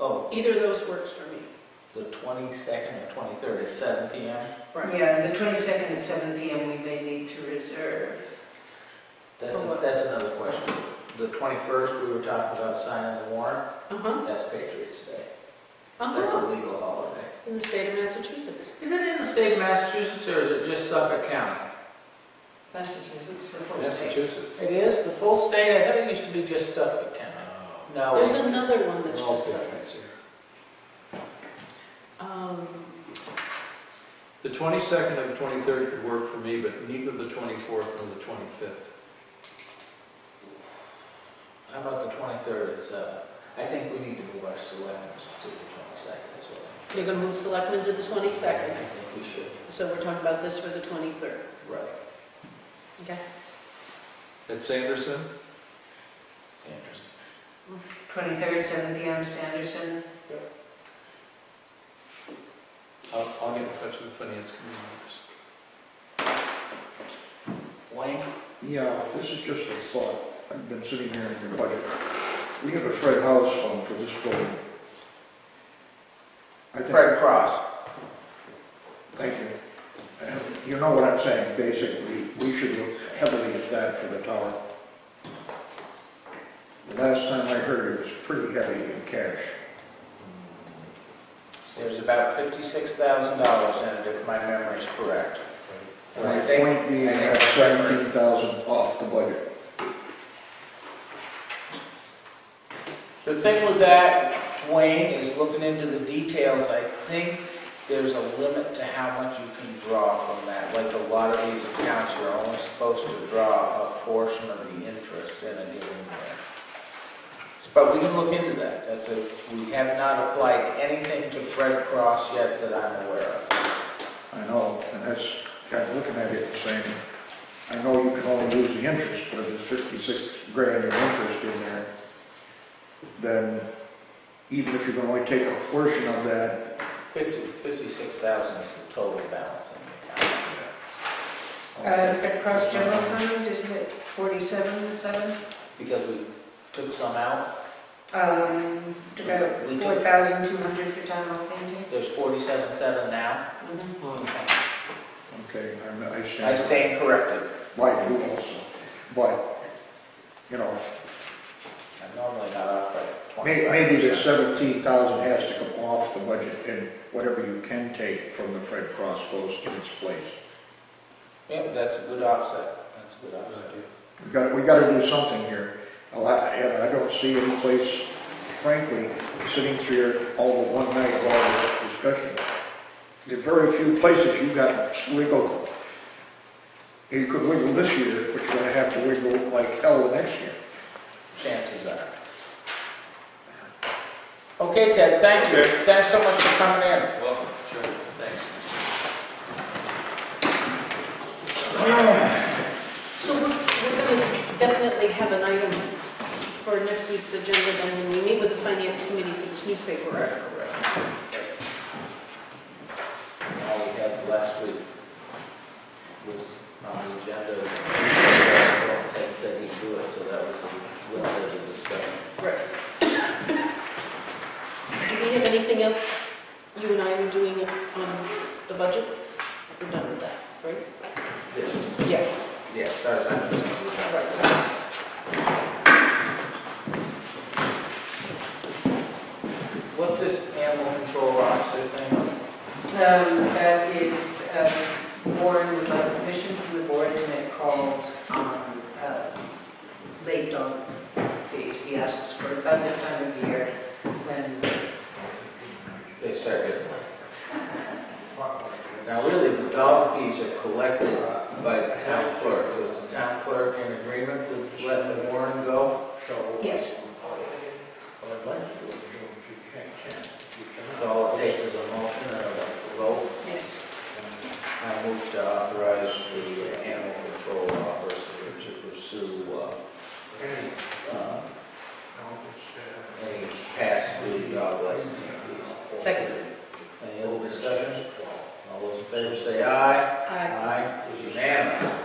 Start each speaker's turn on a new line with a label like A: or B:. A: Oh,
B: Either of those works for me.
A: the 22nd or 23rd at seven PM?
B: Right.
C: Yeah, the 22nd at seven PM, we may need to reserve.
A: That's,
B: For
A: a-
B: what?
A: that's another question. The 21st, we were talking about signing the warrant,
B: Uh-huh,
A: that's Patriots Day. That's
B: uh-huh,
A: a legal holiday.
B: in the state of Massachusetts.
A: Is it in the state of Massachusetts or is it just Suffolk County?
C: Massachusetts, the full state.
D: Massachusetts.
A: It is, the full state, I thought it used to be just Suffolk County. No.
B: There's another one that's
D: Well,
B: just
D: Oh, okay.
B: like this. Um,
D: The 22nd and the 23rd could work for me, but neither the 24th nor the 25th.
A: How about the 23rd at seven? I think we need to move our selectmen to the 22nd as well.
B: you're gonna move selectmen to the
A: I
B: 22nd,
A: think we should,
B: so we're talking about this for the 23rd,
A: right,
B: okay?
D: At Sanderson,
A: Sanders.
C: 23rd, seven PM, Sanderson.
D: I'll, uh, I'll get in touch with the finance committee
A: Wayne?
E: Yeah, this is just a thought. I've been sitting here in your budget. We have a Fred House fund for this building. I think-
A: Fred Cross.
E: Thank you. And You know what I'm saying, basically, we should look heavily at that for the tower. The last time I heard, it was pretty heavy in cash.
A: There's about $56,000 in it, if my memory's correct. And I
E: My
A: think-
E: point being,
A: I
E: I
A: think
E: have
A: it's separate.
E: seventeen thousand off the budget.
A: The thing with that, Wayne, is looking into the details, I think there's a limit to how much you can draw from that. Like a lot of these accounts, you're only supposed to draw a portion of the interest in a given year. But we can look into that. That's a, we have not applied anything to Fred Cross yet that I'm aware of.
E: I know, and that's, kind of looking at it and saying, I know you can only lose the interest, but if there's fifty-six grand of interest in there, then even if you can only take a portion of that,
A: Fifty, fifty-six thousand is the total balance in the account.
C: Uh, Red Cross General Fund, isn't it 47, seven?
A: Because we took some out,
C: Um, took out
A: We do.
C: 4,200 for town hall painting.
A: there's forty-seven, seven now.
C: Mm-hmm.
B: Mhm.
D: on this.
E: okay, I'm- I stand.
A: I stand corrected.
E: Like you also, but, you know,
A: I'm normally not up by
E: may-
A: twenty.
E: maybe the seventeen thousand has to come off the budget, and whatever you can take from the Fred Cross goes to its place.
A: Yeah, that's a good offset, that's a good offset.
E: We got, we gotta do something here. A lot- And I don't see any place, frankly, sitting through here all the one night of all this discussion. There are very few places you got wiggle. You could wiggle this year, but you're gonna have to wiggle like hell the next year.
A: Chances are. Okay, Ted, thank you. Thanks so much for coming in.
D: Welcome, sure, thanks.
B: So we're we're gonna definitely have an item for next week's agenda, then when we meet with the finance committee for this newspaper article.
A: Correct, correct. All we had last week was on the agenda, Ted said he'd do it, so that was the, what was the discussion.
B: Right. Do we have anything else you and I are doing on the budget? We're done with that, right?
A: This,
B: Yes.
A: yeah, starts on this one. What's this animal control officer thing?
C: Um, That is um, Warren without permission from the board, and it calls on uh, late dog fees. He asks for about this time of year when
A: They start getting Now, really, the dog fees are collected by the town clerk. Was the town clerk in agreement with letting the warrant go?
C: Yes.
A: So all it takes is a motion and a vote.
C: Yes.
A: I move to authorize the uh, animal control officer to pursue, uh, uh, any past due dog licensing fees.
B: Second.
A: Any other discussions? All those in favor say aye.
B: Aye.
A: Aye, It's unanimous.